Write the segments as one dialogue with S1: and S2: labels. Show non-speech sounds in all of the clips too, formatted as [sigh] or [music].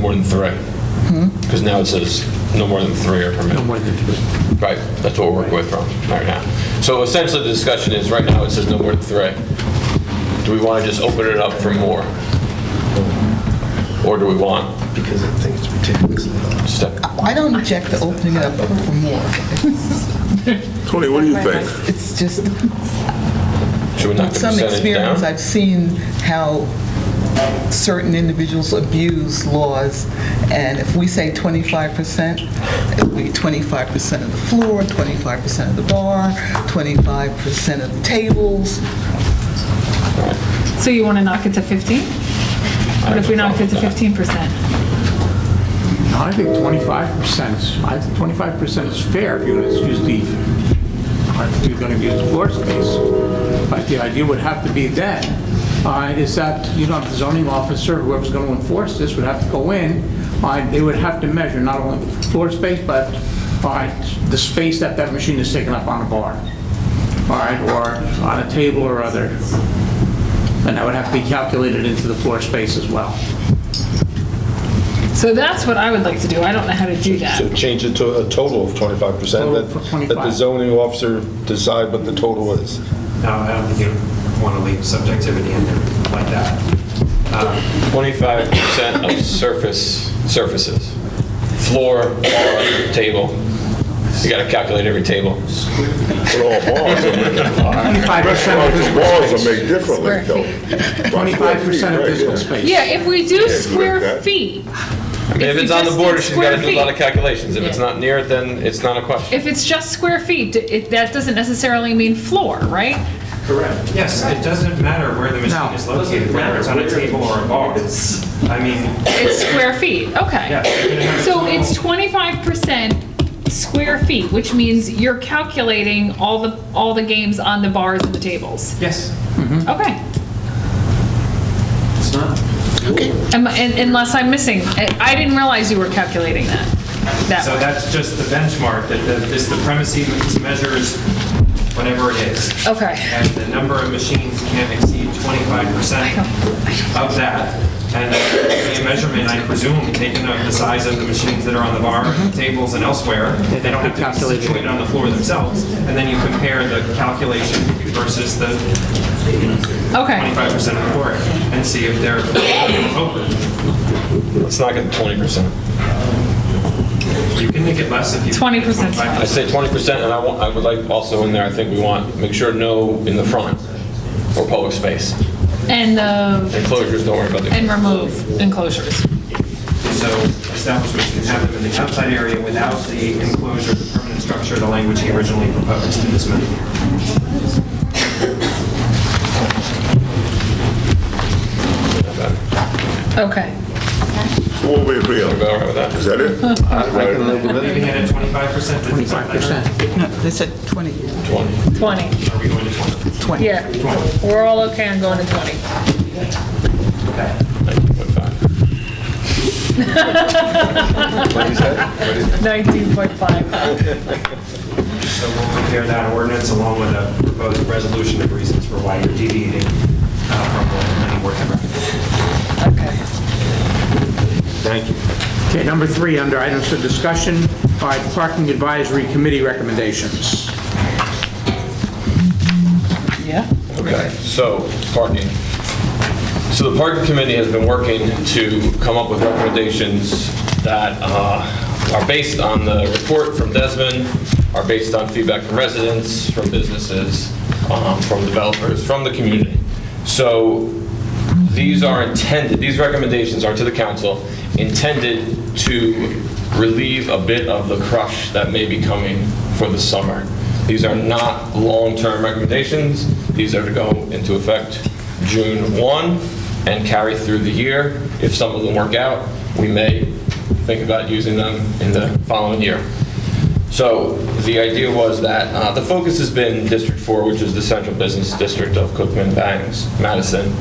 S1: more than three.
S2: Hmm?
S1: Because now it says no more than three are permitted. No more than three. Right, that's what we're working with from right now. So essentially, the discussion is, right now, it says no more than three. Do we want to just open it up for more? Or do we want
S3: because I think it's ridiculous.
S1: step?
S4: I don't object to opening it up for more.
S5: Tony, what do you think?
S4: It's just,
S1: Should we knock
S4: with
S1: the
S4: some
S1: percentage
S4: experience,
S1: down?
S4: I've seen how certain individuals abuse laws, and if we say 25%, it'll be 25% of the floor, 25% of the bar, 25% of the tables.
S2: So you want to knock it to 15? What if we knocked it to 15%?
S6: I think 25% is, I think 25% is fair if you're going to use the, if you're going to use the floor space. But the idea would have to be then, uh, is that, you know, the zoning officer, whoever's going to enforce this, would have to go in, uh, they would have to measure not only the floor space, but uh, the space that that machine is taking up on a bar, all right, or on a table or other. And that would have to be calculated into the floor space as well.
S2: So that's what I would like to do. I don't know how to do that.
S7: So change it to a total of 25%,
S6: Total for
S7: that- that the
S6: 25.
S7: zoning officer decide what the total is.
S8: No, I don't think you want to leave subjectivity in there like that. Um,
S1: 25%
S2: [laughs]
S1: of surface, surfaces. Floor, bar, table. You got to calculate every table.
S5: But all bars are made,
S6: 25% of
S5: restaurants
S6: the
S5: and bars are made differently, though.
S6: Twenty-five percent of
S5: Right,
S6: physical
S5: yeah.
S6: space.
S2: Yeah, if we do
S5: do
S2: square
S5: that.
S2: feet,
S1: I mean,
S2: If
S1: if
S2: you
S1: it's on the
S2: just
S1: border,
S2: did
S1: she's got to
S2: square
S1: do a lot of
S2: feet.
S1: calculations. If it's
S2: Yeah.
S1: not near it, then it's not a question.
S2: if it's just square feet, it, that doesn't necessarily mean floor, right?
S8: Correct. Yes, it doesn't matter where the machine
S6: No.
S8: is located, whether it's on a table or a bar. I mean,
S2: It's square feet,
S8: yeah.
S2: okay.
S8: you can have a
S2: So
S8: total-
S2: it's 25% square feet, which means you're calculating all the, all the games on the bars and the tables.
S8: Yes,
S2: Okay.
S8: it's not.
S2: Am- and- Unless I'm missing, I I didn't realize you were calculating that, that
S8: So
S2: way.
S8: that's just the benchmark, that the- is the premise he measures whatever it is.
S2: Okay.
S8: And the number of machines can't exceed 25% of that. And the measurement, I presume, taken of the size of the machines that are on the bar, tables, and elsewhere, they don't have to be
S6: Calculated.
S8: situated on the floor themselves. And then you compare the calculation versus the
S2: Okay.
S8: 25% of the floor and see if they're open.
S1: Let's knock it to 20%.
S8: You can make it less if you.
S2: 20%.
S1: I say 20%, and I want, I would like also in there, I think we want, make sure no in the front or public space.
S2: And, uh,
S1: Enclosures, don't worry about the
S2: and remove enclosures.
S8: So establishments can have them in the outside area without the enclosure, the permanent structure, the language he originally proposed in this amendment.
S2: Okay.
S5: What we agree on?
S1: Everybody all right with that?
S5: Is that it? Right.
S8: Leaving it at 25%. Did we
S6: Twenty-five
S8: decide that?
S6: percent.
S4: No, they said 20,
S1: 20.
S2: 20.
S8: Are we going to 20?
S4: 20.
S2: Yeah. We're all okay on going to 20.
S8: Okay.
S1: Fine.
S2: 19.5.
S8: So we'll compare that ordinance along with a proposed resolution of reasons for why you're deviating uh, from what the planning board had recommended.
S2: Okay.
S7: Thank you.
S6: Okay, number three, under items for discussion, all right, parking advisory committee recommendations.
S4: Yeah?
S1: Okay, so parking. So the parking committee has been working to come up with recommendations that uh, are based on the report from Desmond, are based on feedback from residents, from businesses, um, from developers, from the community. So these are intended, these recommendations are to the council, intended to relieve a bit of the crush that may be coming for the summer. These are not long-term recommendations. These are to go into effect June 1 and carry through the year. If some of them work out, we may think about using them in the following year. So the idea was that, uh, the focus has been District 4, which is the central business district of Cookman, Bangs, Madison,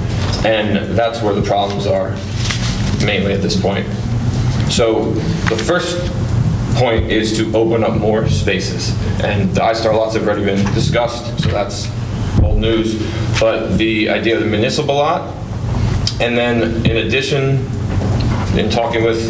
S1: and that's where the problems are mainly at this point. So the first point is to open up more spaces, and the I-Star lots have already been discussed, so that's old news, but the idea of the municipal lot, and then in addition, in talking with